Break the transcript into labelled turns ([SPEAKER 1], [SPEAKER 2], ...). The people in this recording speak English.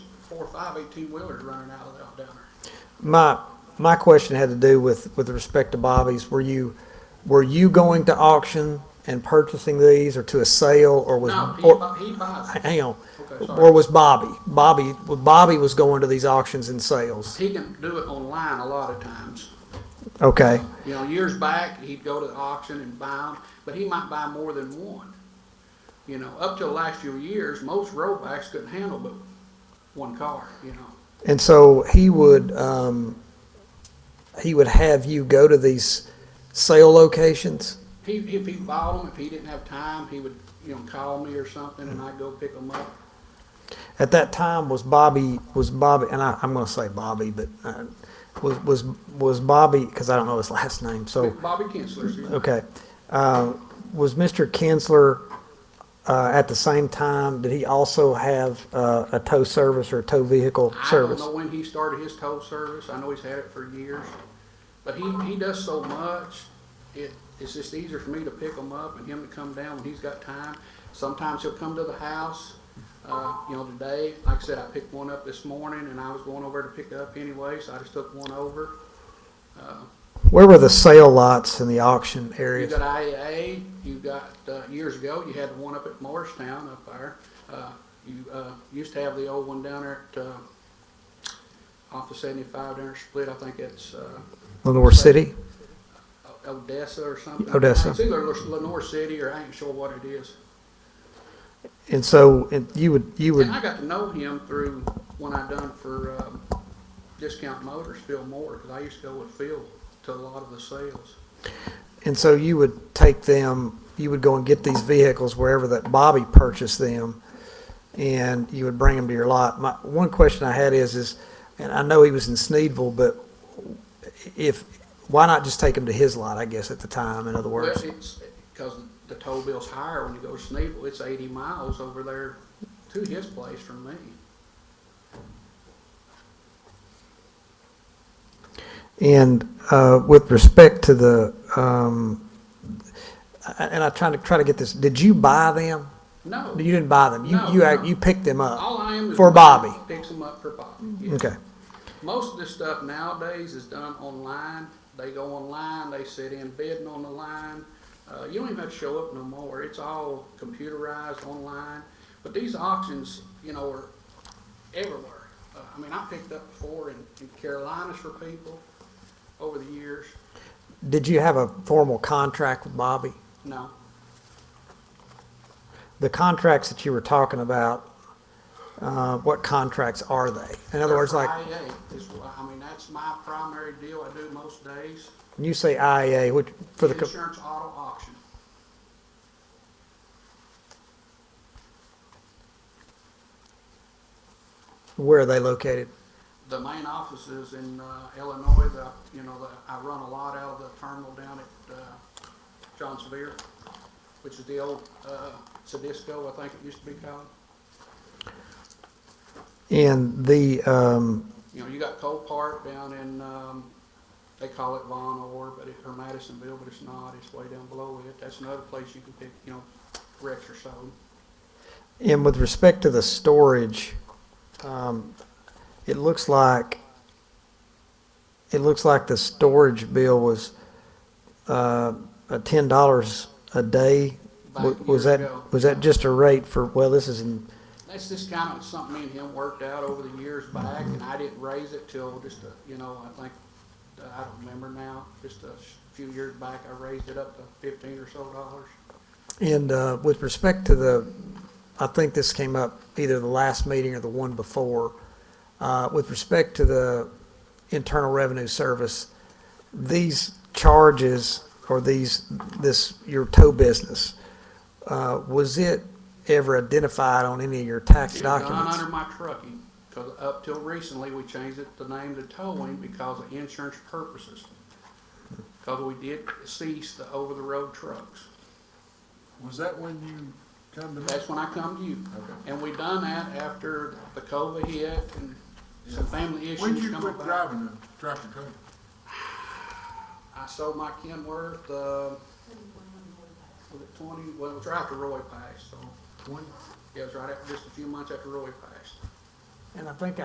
[SPEAKER 1] four or five eighteen-wheelers running out of that down there.
[SPEAKER 2] My, my question had to do with, with respect to Bobby's. Were you, were you going to auction and purchasing these or to a sale or was?
[SPEAKER 1] No, he
[SPEAKER 2] or-
[SPEAKER 1] bu- he buys them.
[SPEAKER 2] Hang on.
[SPEAKER 1] Okay, sorry.
[SPEAKER 2] Or was Bobby? Bobby, Bobby was going to these auctions and sales.
[SPEAKER 1] He can do it online a lot of times.
[SPEAKER 2] Okay.
[SPEAKER 1] You know, years back, he'd go to the auction and buy them, but he might buy more than one. You know, up till the last few years, most roadbacks couldn't handle but one car, you know.
[SPEAKER 2] And so he would, um, he would have you go to these sale locations?
[SPEAKER 1] He, if he bought them, if he didn't have time, he would, you know, call me or something and I'd go pick them up.
[SPEAKER 2] At that time, was Bobby, was Bobby, and I, I'm gonna say Bobby, but, uh, was, was, was Bobby, cause I don't know his last name, so,
[SPEAKER 1] Bobby Kinsler's. his name.
[SPEAKER 2] okay. Uh, was Mr. Kinsler, uh, at the same time, did he also have, uh, a tow service or a tow vehicle
[SPEAKER 1] I don't
[SPEAKER 2] service?
[SPEAKER 1] know when he started his tow service. I know he's had it for years. But he, he does so much, it, it's just easier for me to pick him up and him to come down when he's got time. Sometimes he'll come to the house, uh, you know, today, like I said, I picked one up this morning and I was going over to pick up anyway, so I just took one over.
[SPEAKER 2] Where were the sale lots and the auction
[SPEAKER 1] You
[SPEAKER 2] areas?
[SPEAKER 1] got IAA, you got, uh, years ago, you had the one up at Morristown up there. Uh, you, uh, used to have the old one down there at, uh, off of seventy-five down there split, I think it's, uh,
[SPEAKER 2] Lenore City?
[SPEAKER 1] Odessa or something.
[SPEAKER 2] Odessa.
[SPEAKER 1] It's either Lenore City or I ain't sure what it is.
[SPEAKER 2] And so, and you would, you would,
[SPEAKER 1] And I got to know him through when I done for, um, Discount Motors, Phil Moore, because I used to go with Phil to a lot of the sales.
[SPEAKER 2] and so you would take them, you would go and get these vehicles wherever that Bobby purchased them, and you would bring them to your lot. My, one question I had is, is, and I know he was in Sneedville, but if, why not just take them to his lot, I guess, at the time, in other
[SPEAKER 1] Well,
[SPEAKER 2] words?
[SPEAKER 1] it's, because the toll bill's higher when you go to Sneeville, it's eighty miles over there to his place from me.
[SPEAKER 2] And uh, with respect to the, um, I- and I trying to, try to get this, did you buy them?
[SPEAKER 1] No,
[SPEAKER 2] You didn't buy them, you,
[SPEAKER 1] No,
[SPEAKER 2] you, act-
[SPEAKER 1] no.
[SPEAKER 2] you picked them up?
[SPEAKER 1] all I am is.
[SPEAKER 2] For Bobby.
[SPEAKER 1] Picks them up for Bobby. yes.
[SPEAKER 2] Okay.
[SPEAKER 1] Most of this stuff nowadays is done online. They go online, they sit in bidding on the line. Uh, you don't even have to show up no more. It's all computerized online. But these auctions, you know, are everywhere. Uh, I mean, I picked up before in, in Carolinas for people over the years.
[SPEAKER 2] Did you have a formal contract with Bobby?
[SPEAKER 1] No,
[SPEAKER 2] The contracts that you were talking about, uh, what contracts are they? In other words, like,
[SPEAKER 1] IA E is, wh- I mean, that's my primary deal I do most days.
[SPEAKER 2] when you say IEA, which, for the, co-
[SPEAKER 1] Insurance auto auction.
[SPEAKER 2] where are they located?
[SPEAKER 1] the main office is in uh, Illinois, the, you know, the, I run a lot out of the terminal down at, uh, John Sevier, which is the old, uh, Sedisco, I think it used to be called.
[SPEAKER 2] And the, um,
[SPEAKER 1] You know, you got Cole Park down in, um, they call it Von Or, but it, or Madisonville, but it's not, it's way down below it. That's another place you can pick, you know, wrecks or so.
[SPEAKER 2] and with respect to the storage, um, it looks like, it looks like the storage bill was, uh, uh, ten dollars a day.
[SPEAKER 1] Back
[SPEAKER 2] Wa- Was
[SPEAKER 1] years
[SPEAKER 2] that,
[SPEAKER 1] ago.
[SPEAKER 2] was that just a rate for, well, this is in
[SPEAKER 1] That's just kind of something me and him worked out over the years back, and I didn't raise it till just, a- you know, I think, uh, I don't remember now, just a sh- few years back, I raised it up to fifteen or so dollars.
[SPEAKER 2] And uh, with respect to the, I think this came up either the last meeting or the one before, uh, with respect to the Internal Revenue Service, these charges or these, this, your tow business, uh, was it ever identified on any of your tax
[SPEAKER 1] It had gone
[SPEAKER 2] documents?
[SPEAKER 1] under my trucking, because up till recently, we changed it, the name to towing because of insurance purposes. Because we did cease the over-the-road trucks.
[SPEAKER 3] Was that when you come to me?
[SPEAKER 1] That's when I come to you.
[SPEAKER 3] Okay.
[SPEAKER 1] And we done that after the COVID hit and some family
[SPEAKER 3] When did
[SPEAKER 1] issues
[SPEAKER 3] you
[SPEAKER 1] come
[SPEAKER 3] quit
[SPEAKER 1] about.
[SPEAKER 3] driving the tractor trailer?
[SPEAKER 1] I sold my Kenworth, uh, was it twenty, well, it was right after Roy passed, so,
[SPEAKER 3] Twenty?
[SPEAKER 1] yeah, it was right after, just a few months after Roy passed.
[SPEAKER 2] And I think